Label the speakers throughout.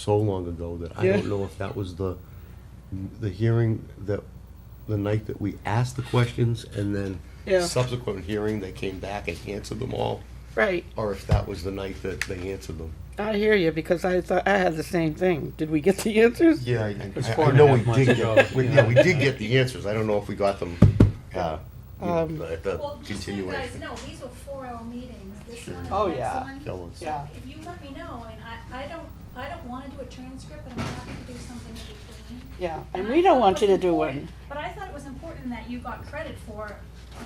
Speaker 1: so long ago that I don't
Speaker 2: Yeah.
Speaker 1: know if that was the, the hearing that, the night that we asked the questions and
Speaker 2: Yeah.
Speaker 1: then subsequent hearing, they came back and answered them all,
Speaker 2: Right,
Speaker 1: or if that was the night that they answered them.
Speaker 2: I hear you, because I thought, I had the same thing. Did we get the answers?
Speaker 1: Yeah, I,
Speaker 3: was
Speaker 1: I-
Speaker 3: four
Speaker 1: I
Speaker 3: and a
Speaker 1: know
Speaker 3: half
Speaker 1: we
Speaker 3: months
Speaker 1: did
Speaker 3: ago,
Speaker 1: get, we-
Speaker 3: yeah.
Speaker 1: yeah, we did get the answers, I don't know if we got them, uh, you know,
Speaker 2: Um,
Speaker 1: at the
Speaker 4: Well, just so you guys
Speaker 1: continuation.
Speaker 4: know, these were four-hour meetings, this
Speaker 1: Sure.
Speaker 4: one,
Speaker 2: Oh,
Speaker 4: the
Speaker 2: yeah.
Speaker 4: next
Speaker 1: Tell
Speaker 4: one.
Speaker 1: us.
Speaker 2: Yeah.
Speaker 4: So if you let me know, and I, I don't, I don't wanna do a transcript, but I'm happy to do something in between.
Speaker 2: Yeah, and
Speaker 4: I
Speaker 2: we
Speaker 4: thought
Speaker 2: don't
Speaker 4: it
Speaker 2: want you
Speaker 4: was
Speaker 2: to do
Speaker 4: important-
Speaker 2: one.
Speaker 4: But I thought it was important that you got credit for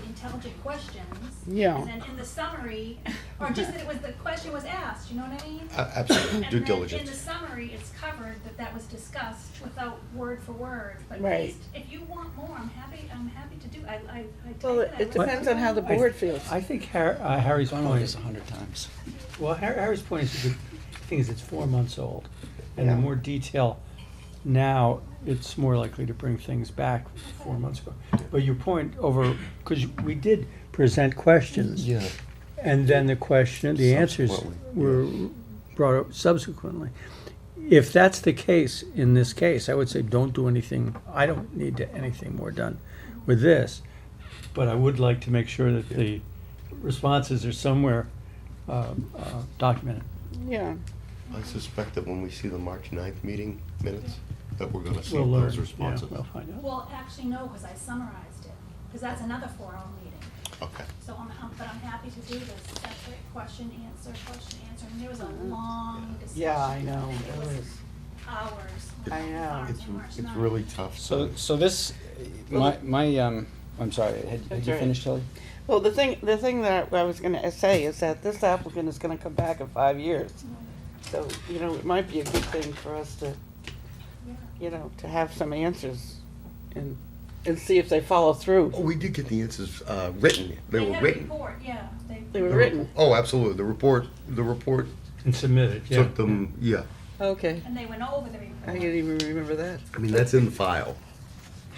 Speaker 4: the intelligent questions.
Speaker 2: Yeah.
Speaker 4: And then in the summary, or just that it was, the question was asked, you know what I mean?
Speaker 1: A- Absolutely, due
Speaker 4: And then in the
Speaker 1: diligence.
Speaker 4: summary, it's covered that that was discussed without word for word, but at
Speaker 2: Right.
Speaker 4: least, if you want more, I'm happy, I'm happy to do, I, I, I take it.
Speaker 2: Well,
Speaker 4: I
Speaker 2: it
Speaker 4: read
Speaker 2: depends on how the
Speaker 3: I-
Speaker 2: board feels.
Speaker 3: I think Har- uh, Harry's
Speaker 5: Gone over
Speaker 3: point
Speaker 5: this
Speaker 3: is,
Speaker 5: a hundred times.
Speaker 3: well, Har- Harry's point is, a good thing is it's four months old. And the
Speaker 1: Yeah.
Speaker 3: more detail now, it's more likely to bring things back four months ago. But your point over, because we did present questions.
Speaker 1: Yeah.
Speaker 3: And then the question, the answers
Speaker 1: Subsequently,
Speaker 3: were brought up subsequently. If that's the case in this case, I would say don't do anything, I don't need to- anything more done with this. But I would like to make sure that the responses are somewhere um, uh, documented.
Speaker 2: Yeah,
Speaker 1: I suspect that when we see the March 9th meeting minutes, that we're gonna see
Speaker 3: We'll learn,
Speaker 1: those
Speaker 3: yeah,
Speaker 1: responses.
Speaker 3: We'll find out.
Speaker 4: Well, actually, no, because I summarized it, because that's another four-hour meeting.
Speaker 1: Okay.
Speaker 4: So I'm, I'm- but I'm happy to do this separate question, answer, question, answer. And there was a long discussion.
Speaker 2: Mm-hmm. yeah, I know.
Speaker 4: think It
Speaker 2: It
Speaker 4: was
Speaker 2: was-
Speaker 4: hours.
Speaker 2: I know.
Speaker 1: It's,
Speaker 4: March
Speaker 1: it's
Speaker 4: 9th.
Speaker 1: really tough.
Speaker 5: So, so this, my, my, um, I'm sorry, had, had
Speaker 2: That's
Speaker 5: you
Speaker 2: all right.
Speaker 5: finished, Tilly?
Speaker 2: Well, the thing, the thing that I was gonna say is that this applicant is gonna come back in five years. So, you know, it might be a good thing for us to,
Speaker 4: Yeah.
Speaker 2: you know, to have some answers and, and see if they follow through.
Speaker 1: Oh, we did get the answers, uh, written. They were
Speaker 4: had a
Speaker 1: written.
Speaker 4: report, yeah. They-
Speaker 2: They were written.
Speaker 1: Oh, absolutely. The report, the report
Speaker 3: And submit it, yeah.
Speaker 1: took them, yeah.
Speaker 2: Okay,
Speaker 4: And they went over the
Speaker 2: I didn't
Speaker 4: report.
Speaker 2: even remember that.
Speaker 1: I mean, that's in the file.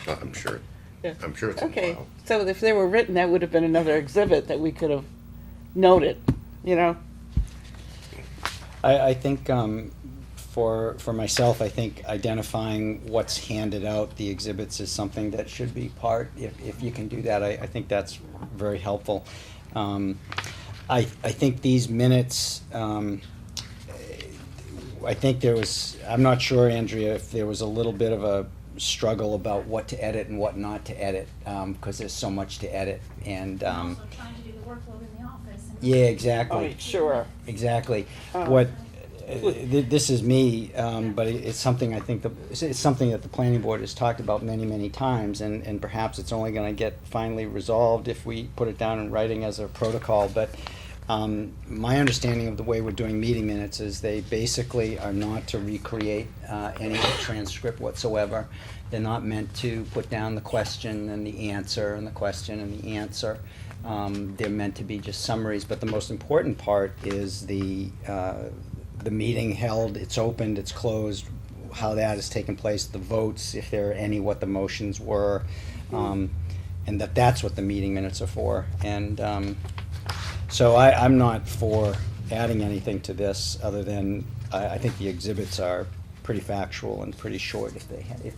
Speaker 1: Uh, I'm sure.
Speaker 2: Yeah.
Speaker 1: I'm sure it's in the
Speaker 2: Okay,
Speaker 1: file.
Speaker 2: so if they were written, that would have been another exhibit that we could have noted, you know?
Speaker 5: I, I think, um, for, for myself, I think identifying what's handed out, the exhibits is something that should be part, if, if you can do that, I, I think that's very helpful. Um, I, I think these minutes, um, I think there was, I'm not sure, Andrea, if there was a little bit of a struggle about what to edit and what not to edit, um, cause there's so much to edit, and,
Speaker 4: I'm
Speaker 5: um,
Speaker 4: Also trying to do the workload in the office. and-
Speaker 5: yeah, exactly.
Speaker 2: Oh, sure.
Speaker 5: Exactly.
Speaker 2: Oh.
Speaker 5: What, uh, th- this is me, um, but it- it's something I think, the- it's- it's something that the planning board has talked about many, many times, and, and perhaps it's only gonna get finally resolved if we put it down in writing as a protocol, but, um, my understanding of the way we're doing meeting minutes is they basically are not to recreate, uh, any transcript whatsoever. They're not meant to put down the question and the answer and the question and the answer. Um, they're meant to be just summaries, but the most important part is the, uh, the meeting held, it's opened, it's closed, how that has taken place, the votes, if there are any, what the motions were. Um, and that that's what the meeting minutes are for. And, um, so I, I'm not for adding anything to this, other than, I, I think the exhibits are pretty factual and pretty short if they, ha- if,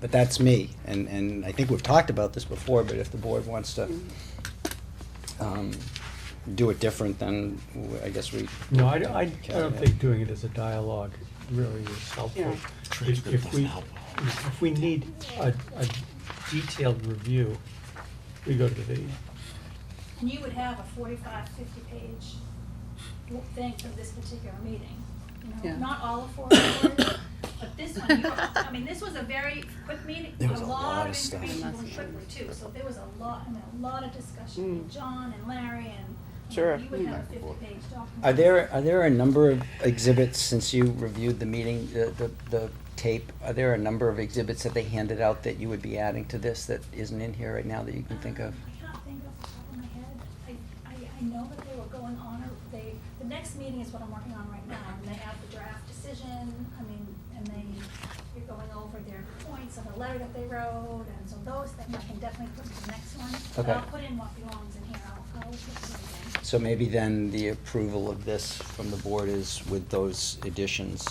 Speaker 5: but that's me, and, and I think we've talked about this before, but if the board wants to, um, do it different, then w- I guess we.
Speaker 3: No, I, don't- I I don't think doing it as a dialogue really is
Speaker 2: Yeah.
Speaker 3: helpful. If if we, if we need a, a detailed review, we go to the video.
Speaker 4: And you would have a 45, 50-page thing for this particular meeting. You
Speaker 2: Yeah.
Speaker 4: know, not all of four hours, but this one, you were- I mean, this was a very quick meeting.
Speaker 5: There was a lot of stuff. Mm.
Speaker 4: information going quickly too, so there was a lot, I mean, a lot of discussion. with John and Larry and, you
Speaker 2: Sure.
Speaker 4: know, you would have a 50-page document.
Speaker 5: Are there, are there a number of exhibits, since you reviewed the meeting, the, the, the tape, are there a number of exhibits that they handed out that you would be adding to this that isn't in here right now that you can think
Speaker 4: I
Speaker 5: of?
Speaker 4: can't think off the top of my head. I, I, I know that they were going on, or they, the next meeting is what I'm working on right now, and they have the draft decision, I mean, and they, you're going over their points of the letter that they wrote, and so those things I can definitely put to the next one. But
Speaker 5: Okay.
Speaker 4: I'll put in what belongs in here, I'll, I'll put it in.
Speaker 5: So maybe then the approval of this from the board is with those additions